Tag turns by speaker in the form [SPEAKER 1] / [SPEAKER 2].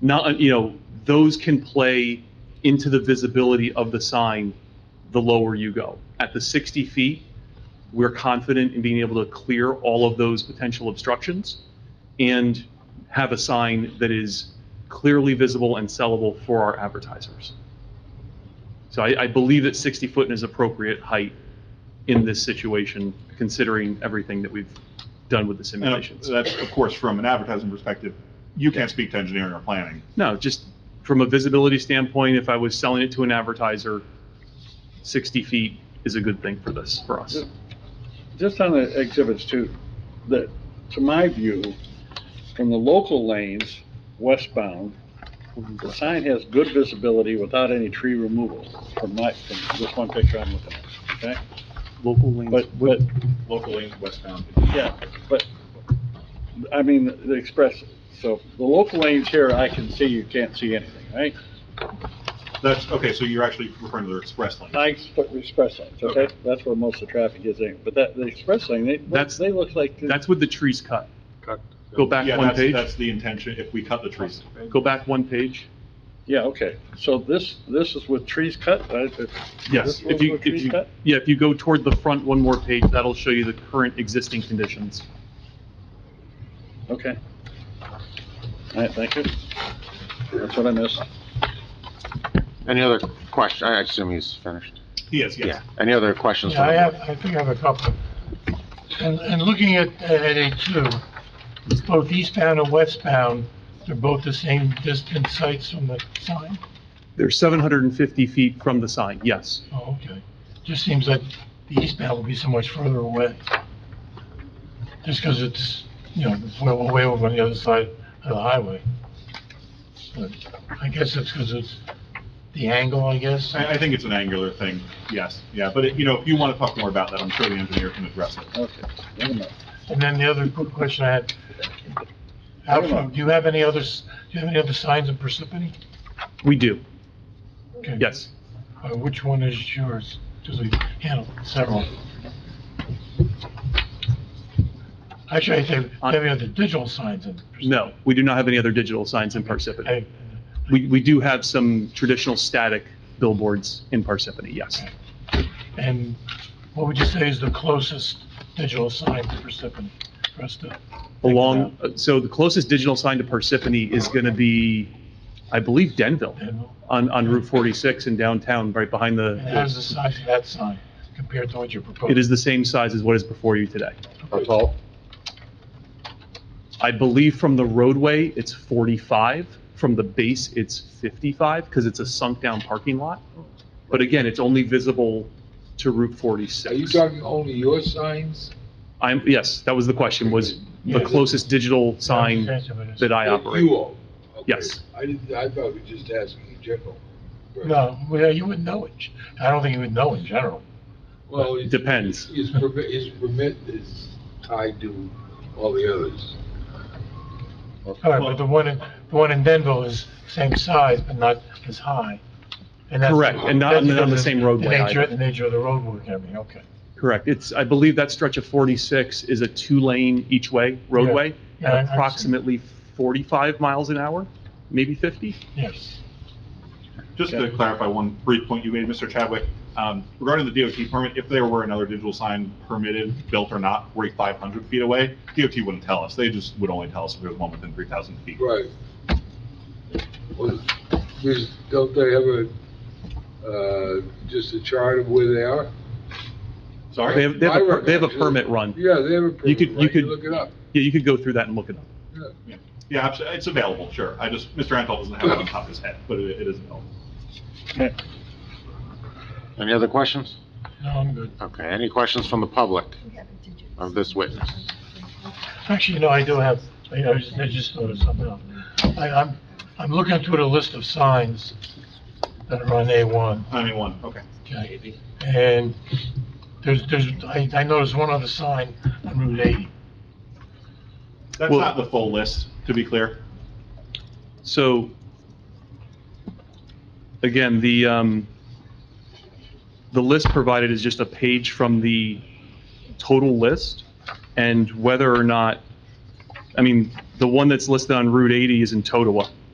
[SPEAKER 1] not, you know, those can play into the visibility of the sign the lower you go. At the 60 feet, we're confident in being able to clear all of those potential obstructions and have a sign that is clearly visible and sellable for our advertisers. So I, I believe that 60 foot is appropriate height in this situation, considering everything that we've done with the
[SPEAKER 2] And uh,
[SPEAKER 1] simulations.
[SPEAKER 2] that's, of course, from an advertising perspective, you can't speak to engineering or planning.
[SPEAKER 1] No, just from a visibility standpoint, if I was selling it to an advertiser, 60 feet is a good thing for this, for us.
[SPEAKER 3] Just on the exhibits too, that, to my view, from the local lanes westbound, the sign has good visibility without any tree removal from my, from this one picture I'm looking at, okay?
[SPEAKER 1] Local lanes.
[SPEAKER 3] But, but,
[SPEAKER 2] Local lanes westbound.
[SPEAKER 3] yeah, but, I mean, the express, so the local lanes here, I can see, you can't see anything, right?
[SPEAKER 2] That's, okay, so you're actually referring to the express lane.
[SPEAKER 3] I expect express lanes, okay? That's where most of the traffic is in, but that, the express lane, they,
[SPEAKER 1] That's-
[SPEAKER 3] they look like.
[SPEAKER 1] That's with the trees cut. Go back
[SPEAKER 2] Yeah,
[SPEAKER 1] one
[SPEAKER 2] that's-
[SPEAKER 1] page.
[SPEAKER 2] That's the intention, if we cut the trees.
[SPEAKER 1] Go back one page.
[SPEAKER 3] Yeah, okay, so this, this is with trees cut, right? It-
[SPEAKER 1] Yes,
[SPEAKER 3] This
[SPEAKER 1] if
[SPEAKER 3] one's
[SPEAKER 1] you,
[SPEAKER 3] with
[SPEAKER 1] if
[SPEAKER 3] trees
[SPEAKER 1] you,
[SPEAKER 3] cut?
[SPEAKER 1] yeah, if you go toward the front one more page, that'll show you the current existing conditions.
[SPEAKER 3] Okay. All right, thank you. That's what I missed.
[SPEAKER 4] Any other question? I assume he's finished.
[SPEAKER 2] Yes, yes.
[SPEAKER 4] Yeah. Any other questions?
[SPEAKER 5] Yeah, I
[SPEAKER 4] from
[SPEAKER 5] have, I think I have a couple. And, and looking at, at A2, it's both eastbound and westbound, they're both the same distance sites from the sign?
[SPEAKER 1] They're 750 feet from the sign, yes.
[SPEAKER 5] Oh, okay. Just seems like the eastbound will be so much further away. Just because it's, you know, it's way, way over on the other side of the highway. But I guess it's because it's the angle, I guess.
[SPEAKER 2] I, I think it's an angular thing, yes, yeah, but, it- you know, if you want to talk more about that, I'm sure the engineer can address it.
[SPEAKER 3] Okay. Wait a minute.
[SPEAKER 5] And then the other quick question I had, Alfred, do you have any others, do you have any other signs in Parsippany?
[SPEAKER 1] We do,
[SPEAKER 5] Okay.
[SPEAKER 1] yes.
[SPEAKER 5] Uh, Which one is yours? Because we handled several. Actually, I think,
[SPEAKER 1] Uh,
[SPEAKER 5] maybe the digital signs in. Parsippany.
[SPEAKER 1] No, we do not have any other digital signs in Parsippany.
[SPEAKER 5] Okay.
[SPEAKER 1] We, we do have some traditional static billboards in Parsippany, yes.
[SPEAKER 5] And what would you say is the closest digital sign to Parsippany for us to?
[SPEAKER 1] Along, uh, so the closest digital sign to Parsippany is going to be, I believe, Denville,
[SPEAKER 5] And
[SPEAKER 1] on, on Route 46 in downtown, right behind
[SPEAKER 5] and how's the
[SPEAKER 1] the,
[SPEAKER 5] size of that sign compared to what you're proposing?
[SPEAKER 1] it is the same size as what is before you today.
[SPEAKER 6] How tall?
[SPEAKER 1] I believe from the roadway, it's 45. From the base, it's 55 because it's a sunk-down parking lot. But again, it's only visible to Route
[SPEAKER 6] Are you
[SPEAKER 1] 46.
[SPEAKER 6] talking only your signs?
[SPEAKER 1] I'm, yes, that was the question, was the
[SPEAKER 5] Yeah.
[SPEAKER 1] closest digital sign that I
[SPEAKER 6] That
[SPEAKER 1] operate.
[SPEAKER 6] You own? Okay.
[SPEAKER 1] Yes.
[SPEAKER 6] I didn't, I thought we were just asking in general.
[SPEAKER 5] No, well, you wouldn't know it. I don't think you would know in general.
[SPEAKER 6] Well, it-
[SPEAKER 1] Depends.
[SPEAKER 6] His permit, his permit is tied to all the others.
[SPEAKER 5] All right, but the one in, the one in Denville is same size, but not as high. And that's-
[SPEAKER 1] Correct, and not-
[SPEAKER 5] that's
[SPEAKER 1] not on the
[SPEAKER 5] because of
[SPEAKER 1] same roadway
[SPEAKER 5] The nature,
[SPEAKER 1] either.
[SPEAKER 5] the nature of the roadwork, I mean, okay.
[SPEAKER 1] Correct. It's, I believe that stretch of 46 is a two-lane each-way roadway
[SPEAKER 5] Yeah, I- I've
[SPEAKER 1] at
[SPEAKER 5] seen-
[SPEAKER 1] approximately 45 miles an hour, maybe 50?
[SPEAKER 5] Yes.
[SPEAKER 2] Just to clarify one brief point you made, Mr. Chadwick, um, regarding the DOT permit, if there were another digital sign permitted, built or not, 4,500 feet away, DOT wouldn't tell us. They just would only tell us if there was one within 3,000 feet.
[SPEAKER 6] Right. Well, there's- don't they have a, uh, just a chart of where they are?
[SPEAKER 1] They
[SPEAKER 2] Sorry?
[SPEAKER 1] have, they have, a per- they have a
[SPEAKER 6] My recollection-
[SPEAKER 1] permit run. Yeah,
[SPEAKER 6] Yeah, they have a permit.
[SPEAKER 1] could- you
[SPEAKER 6] run.
[SPEAKER 1] could-
[SPEAKER 6] Look it up.
[SPEAKER 1] you could go through that and look it up.
[SPEAKER 6] Yeah.
[SPEAKER 2] Yeah, abso- it's available, sure. I just, Mr. Antal doesn't have it on top of his head, but it it is available.
[SPEAKER 3] Okay.
[SPEAKER 4] Any other questions?
[SPEAKER 5] No, I'm good.
[SPEAKER 4] Okay, any questions from the public of this witness?
[SPEAKER 5] Actually, no, I do have, I I just, I just thought of something else. I, I'm, I'm looking through the list of signs that are on A1,
[SPEAKER 2] I mean, one, okay.
[SPEAKER 5] okay? And there's, there's, I, I noticed one other sign on Route 80.
[SPEAKER 2] That's
[SPEAKER 1] Well-
[SPEAKER 2] not the full list, to be clear.
[SPEAKER 1] So, again, the, um, the list provided is just a page from the total list, and whether or not, I mean, the one that's listed on Route 80 is in Totowa,